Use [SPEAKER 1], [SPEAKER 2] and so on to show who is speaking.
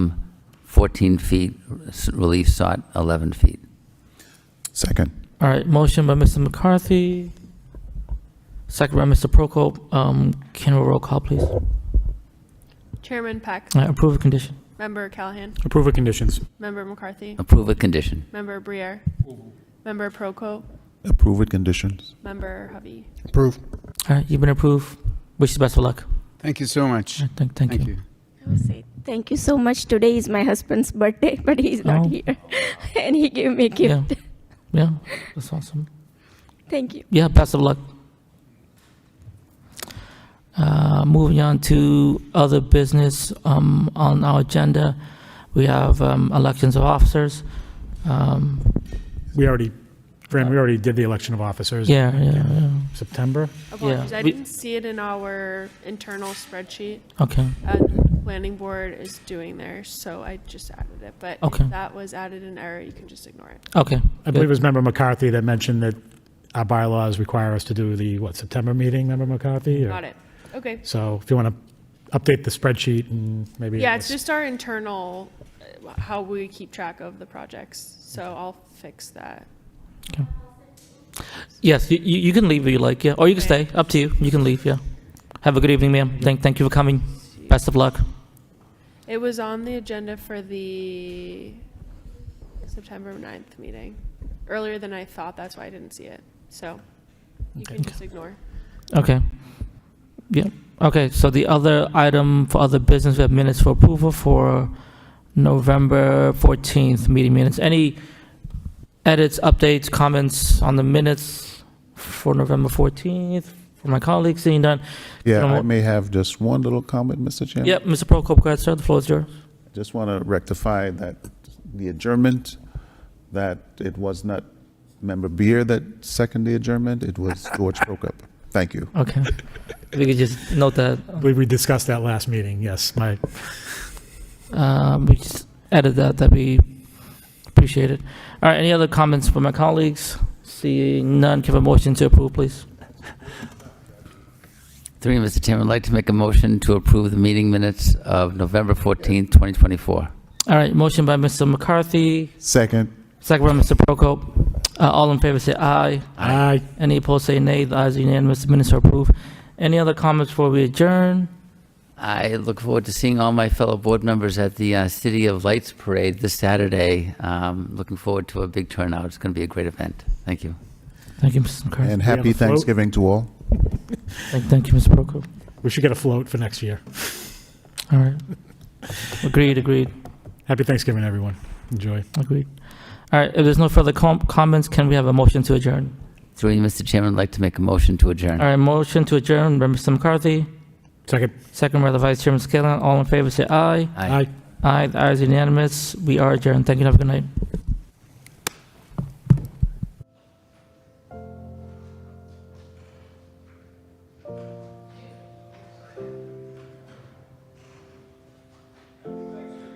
[SPEAKER 1] 14 feet, s- relief sought 11 feet.
[SPEAKER 2] Second.
[SPEAKER 3] All right, motion by Mr. McCarthy, second by Mr. Prokop. Um, Can we roll call, please? All
[SPEAKER 4] Chairman Peck,
[SPEAKER 3] right, Approve of condition.
[SPEAKER 4] Member Callahan,
[SPEAKER 5] Approve of conditions.
[SPEAKER 4] Member McCarthy,
[SPEAKER 1] Approve a condition.
[SPEAKER 4] Member Briere, Member Proko,
[SPEAKER 2] Approve with conditions.
[SPEAKER 4] Member Hovey.
[SPEAKER 6] Approved.
[SPEAKER 3] All right, you've been approved. Wish you best of luck.
[SPEAKER 7] Thank you so much.
[SPEAKER 3] All right, Thank thank
[SPEAKER 7] Thank
[SPEAKER 3] you.
[SPEAKER 7] you.
[SPEAKER 8] I would say thank you so much. Today is my husband's birthday, but he's not
[SPEAKER 3] Oh.
[SPEAKER 8] here, and he gave me a gift.
[SPEAKER 3] Yeah. Yeah, that's awesome.
[SPEAKER 8] Thank you.
[SPEAKER 3] Yeah, best of luck. Uh, Moving on to other business um, on our agenda, we have um, elections of officers. Um,
[SPEAKER 5] We already, Fran, we already did the election of officers. in
[SPEAKER 3] Yeah, yeah, yeah.
[SPEAKER 5] September.
[SPEAKER 4] Apologies, I
[SPEAKER 3] we-
[SPEAKER 4] didn't see it in our internal spreadsheet.
[SPEAKER 3] Okay,
[SPEAKER 4] Uh, the Planning board is doing theirs, so I just added it, but
[SPEAKER 3] Okay.
[SPEAKER 4] if that was added in error, you can just ignore it.
[SPEAKER 3] okay.
[SPEAKER 5] I believe it was Member McCarthy that mentioned that our bylaws require us to do the, what, September meeting, Member McCarthy? or-
[SPEAKER 4] Got it. Okay.
[SPEAKER 5] So if you want to update the spreadsheet and maybe.
[SPEAKER 4] Yeah, it's
[SPEAKER 5] let's-
[SPEAKER 4] just our internal, uh, how we keep track of the projects, so I'll fix that.
[SPEAKER 3] Yes, you, you you can leave if you like, yeah, or you can stay, up to you, you can leave, yeah. Have a good evening, ma'am, thank, thank you for coming, best of luck.
[SPEAKER 4] It was on the agenda for the September 9th meeting, earlier than I thought, that's why I didn't see it. So you can just ignore.
[SPEAKER 3] Okay. Yeah, okay, so the other item for other business, we have minutes for approval for November 14th meeting minutes. Any edits, updates, comments on the minutes for November 14th, for my colleagues, seeing done?
[SPEAKER 2] Yeah, I
[SPEAKER 3] Someone-
[SPEAKER 2] may have just one little comment, Mr. Chairman.
[SPEAKER 3] Yep, Mr. Prokop, go ahead, sir, the floor is yours.
[SPEAKER 2] Just want to rectify that the adjournment, that it was not Member Beer that seconded the adjournment, it was George Prokop. Thank you.
[SPEAKER 3] Okay, If we could just note that.
[SPEAKER 5] I believe we discussed that last meeting, yes. My,
[SPEAKER 3] Um, we just added that, that'd be appreciated. All right, any other comments from my colleagues? Seeing none, give a motion to approve, please.
[SPEAKER 1] Three, Mr. Chairman, I'd like to make a motion to approve the meeting minutes of November 14, 2024.
[SPEAKER 3] All right, motion by Mr. McCarthy,
[SPEAKER 2] Second.
[SPEAKER 3] second by Mr. Prokop. Uh, all in favor say aye.
[SPEAKER 5] I,
[SPEAKER 3] Any opposed say nay. The ayes are unanimous, the minutes are approved. Any other comments before we adjourn?
[SPEAKER 1] I look forward to seeing all my fellow board members at the uh, City of Lights Parade this Saturday. Um, Looking forward to a big turnout. It's going to be a great event. Thank you.
[SPEAKER 3] Thank you, Mr. McCarthy.
[SPEAKER 2] And
[SPEAKER 5] have
[SPEAKER 2] happy
[SPEAKER 5] a float?
[SPEAKER 2] Thanksgiving to all.
[SPEAKER 3] Thank, thank you, Mr. Prokop.
[SPEAKER 5] we should get a float for next year.
[SPEAKER 3] All right. Agreed, agreed,
[SPEAKER 5] Happy Thanksgiving, everyone. Enjoy.
[SPEAKER 3] agreed. All right, if there's no further com- comments, can we have a motion to adjourn?
[SPEAKER 1] Three, Mr. Chairman, I'd like to make a motion to adjourn.
[SPEAKER 3] All right, motion to adjourn by Mr. McCarthy.
[SPEAKER 5] Second.
[SPEAKER 3] Second by the Vice Chairman Scanlon. All in favor, say aye.
[SPEAKER 1] Aye.
[SPEAKER 5] Aye.
[SPEAKER 3] Aye, the ayes are unanimous. We are adjourned. Thank you and have a good night.